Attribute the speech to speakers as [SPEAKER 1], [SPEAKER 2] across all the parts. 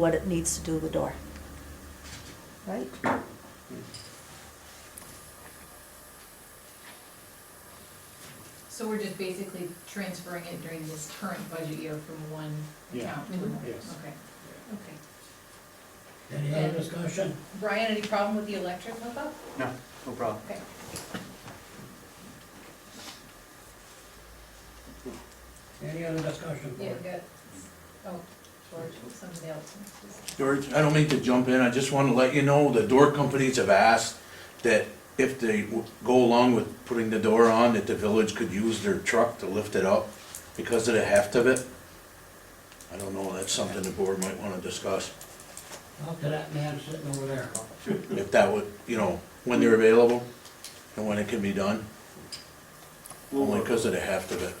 [SPEAKER 1] what it needs to do with the door. Right?
[SPEAKER 2] So we're just basically transferring it during this current budget year from one
[SPEAKER 3] Yeah.
[SPEAKER 2] account to
[SPEAKER 1] Mhm.
[SPEAKER 2] another?
[SPEAKER 3] Yes.
[SPEAKER 2] Okay, okay.
[SPEAKER 4] Any other discussion?
[SPEAKER 2] Brian, any problem with the electric hookup?
[SPEAKER 3] No, no problem.
[SPEAKER 2] Okay.
[SPEAKER 4] Any other discussion?
[SPEAKER 2] Yeah, you got, oh, George, somebody else.
[SPEAKER 5] George, I don't mean to jump in, I just wanna let you know, the door companies have asked that if they w- go along with putting the door on, that the village could use their truck to lift it up because of the heft of it. I don't know, that's something the board might wanna discuss,
[SPEAKER 4] Up to that man sitting over there.
[SPEAKER 5] if that would, you know, when they're available and when it can be done,
[SPEAKER 3] We'll
[SPEAKER 5] only
[SPEAKER 3] work.
[SPEAKER 5] because of the heft of it.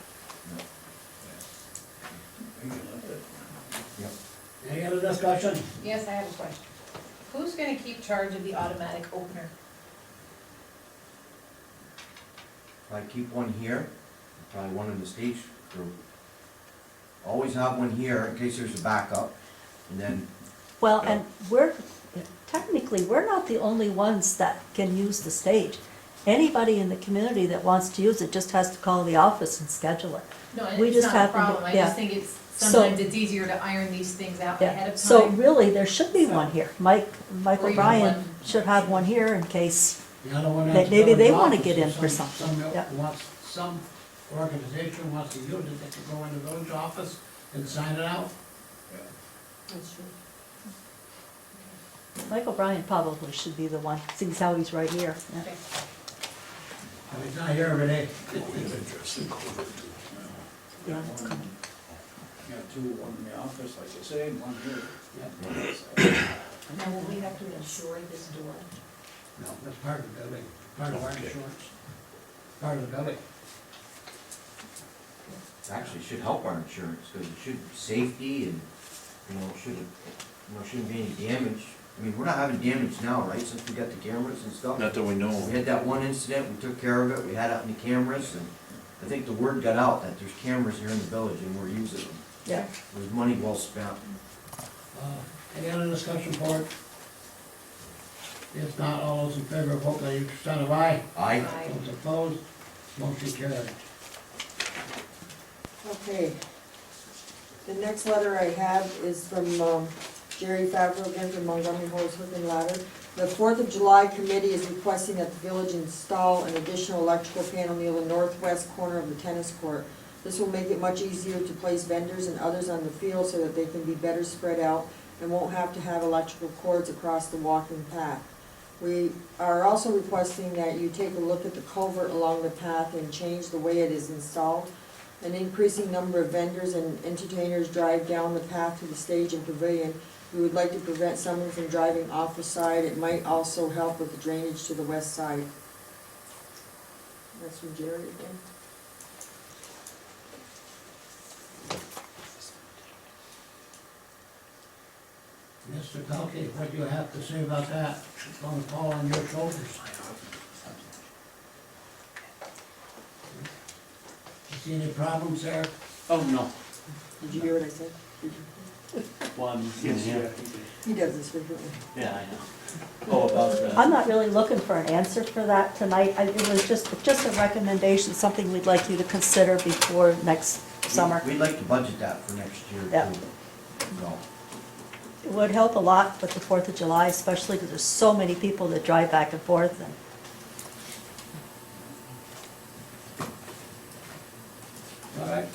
[SPEAKER 4] Any other discussion?
[SPEAKER 2] Yes, I have a question. Who's gonna keep charge of the automatic opener?
[SPEAKER 6] I keep one here, probably one in the stage crew. Always have one here in case there's a backup, and then,
[SPEAKER 1] Well, and we're, technically, we're not the only ones that can use the stage. Anybody in the community that wants to use it just has to call the office and schedule it.
[SPEAKER 2] No,
[SPEAKER 1] We
[SPEAKER 2] it's
[SPEAKER 1] just
[SPEAKER 2] not a
[SPEAKER 1] happen to-
[SPEAKER 2] problem, I
[SPEAKER 1] yeah.
[SPEAKER 2] just think it's,
[SPEAKER 1] So-
[SPEAKER 2] sometimes it's easier to iron these things out ahead
[SPEAKER 1] Yeah,
[SPEAKER 2] of
[SPEAKER 1] so
[SPEAKER 2] time.
[SPEAKER 1] really, there should be one here. Mike,
[SPEAKER 2] Or
[SPEAKER 1] Michael
[SPEAKER 2] even
[SPEAKER 1] Bryan
[SPEAKER 2] one-
[SPEAKER 1] should have one here in case,
[SPEAKER 4] The other one.
[SPEAKER 1] May-
[SPEAKER 4] that's
[SPEAKER 1] maybe they
[SPEAKER 4] going
[SPEAKER 1] wanna
[SPEAKER 4] office
[SPEAKER 1] get in
[SPEAKER 4] is
[SPEAKER 1] for
[SPEAKER 4] some-
[SPEAKER 1] something,
[SPEAKER 4] some
[SPEAKER 1] yeah.
[SPEAKER 4] Wants, some organization wants to use it, they can go in the village office and sign it out.
[SPEAKER 1] Michael Bryan probably should be the one, seeing as how he's right here. yeah.
[SPEAKER 2] Okay.
[SPEAKER 4] I mean, it's not here every day.
[SPEAKER 1] Yeah, it's coming.
[SPEAKER 7] Yeah, two, one in the office, like you say, and one here.
[SPEAKER 2] Now, will we have to insure this door?
[SPEAKER 4] No, that's part of the building, part of our
[SPEAKER 5] Okay.
[SPEAKER 4] insurance, part of the building.
[SPEAKER 6] it actually should help our insurance, because it should, safety and, you know, it should, you know, shouldn't be any damage. I mean, we're not having damage now, right, since we got the cameras and stuff?
[SPEAKER 5] Not that we know
[SPEAKER 6] We
[SPEAKER 5] of.
[SPEAKER 6] had that one incident, we took care of it, we had it on the cameras, and I think the word got out that there's cameras here in the village and we're using them.
[SPEAKER 1] Yeah.
[SPEAKER 6] It was money well spent.
[SPEAKER 4] Uh, Any other discussion for it? If not, all those in favor, vote by your sign of aye.
[SPEAKER 6] Aye.
[SPEAKER 2] Aye.
[SPEAKER 4] Those opposed, motion carried.
[SPEAKER 8] Okay. The next letter I have is from um, Jerry Favreau, again from Montgomery Holds Hook and Ladder. The Fourth of July Committee is requesting that the village install an additional electrical panel near the northwest corner of the tennis court. This will make it much easier to place vendors and others on the field so that they can be better spread out and won't have to have electrical cords across the walking path. We are also requesting that you take a look at the culvert along the path and change the way it is installed. An increasing number of vendors and entertainers drive down the path to the stage and pavilion. We would like to prevent someone from driving off the side. It might also help with the drainage to the west side. That's from Jerry again.
[SPEAKER 4] Mr. Pelkey, what do you have to say about that? It's gonna fall on your shoulders. You see any problems there?
[SPEAKER 3] Oh, no,
[SPEAKER 8] Did you hear what I said?
[SPEAKER 3] one.
[SPEAKER 7] Yes, yeah.
[SPEAKER 8] He does this frequently.
[SPEAKER 3] Yeah, I know. Oh, about the,
[SPEAKER 1] I'm not really looking for an answer for that tonight. I- It was just, just a recommendation, something we'd like you to consider before next summer.
[SPEAKER 6] We'd like to budget that for next year
[SPEAKER 1] Yeah.
[SPEAKER 6] too. No.
[SPEAKER 1] It would help a lot with the Fourth of July, especially because there's so many people that drive back and forth and
[SPEAKER 4] All right,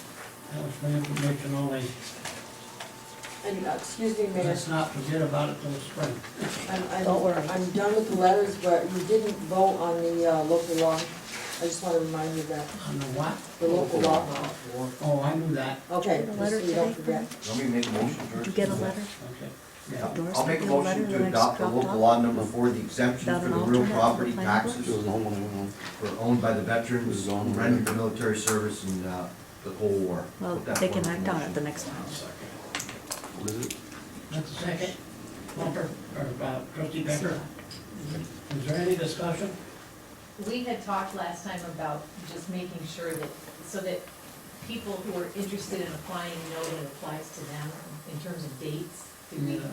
[SPEAKER 4] that was for information only.
[SPEAKER 8] And, uh, excuse me, Mayor.
[SPEAKER 4] Let's not forget about it till spring.
[SPEAKER 8] I'm, I'm.
[SPEAKER 1] Don't worry.
[SPEAKER 8] I'm done with the letters, but you didn't vote on the uh, local law. I just want to remind you of that,
[SPEAKER 4] On the what?
[SPEAKER 8] the local law.
[SPEAKER 4] Oh, I knew that,
[SPEAKER 8] Okay,
[SPEAKER 1] The
[SPEAKER 8] just so
[SPEAKER 1] letter
[SPEAKER 8] you don't
[SPEAKER 1] today,
[SPEAKER 8] forget.
[SPEAKER 6] Let me make a motion, George.
[SPEAKER 1] did you get a letter?
[SPEAKER 4] okay.
[SPEAKER 6] Yeah,
[SPEAKER 4] Yeah,
[SPEAKER 1] Doris,
[SPEAKER 6] I'll make a
[SPEAKER 1] did you get a letter
[SPEAKER 6] motion
[SPEAKER 1] that I
[SPEAKER 6] to
[SPEAKER 1] just
[SPEAKER 6] adopt the
[SPEAKER 1] dropped
[SPEAKER 6] local
[SPEAKER 1] off?
[SPEAKER 6] law number four, the exemption
[SPEAKER 1] Without
[SPEAKER 6] for
[SPEAKER 1] an
[SPEAKER 6] the real
[SPEAKER 1] alternate for the
[SPEAKER 6] property
[SPEAKER 1] planning
[SPEAKER 6] taxes for owned by the veterans who rendered their military service in uh, the Cold War.
[SPEAKER 1] Well,
[SPEAKER 6] Put that
[SPEAKER 1] they can
[SPEAKER 6] forward
[SPEAKER 1] act
[SPEAKER 6] for
[SPEAKER 1] on it
[SPEAKER 6] motion.
[SPEAKER 1] the next time.
[SPEAKER 4] that's the second. Bumper, or about trustee Becker? Is there any discussion?
[SPEAKER 2] We had talked last time about just making sure that, so that people who are interested in applying know that it applies to them in terms of dates. Did we
[SPEAKER 4] Yeah.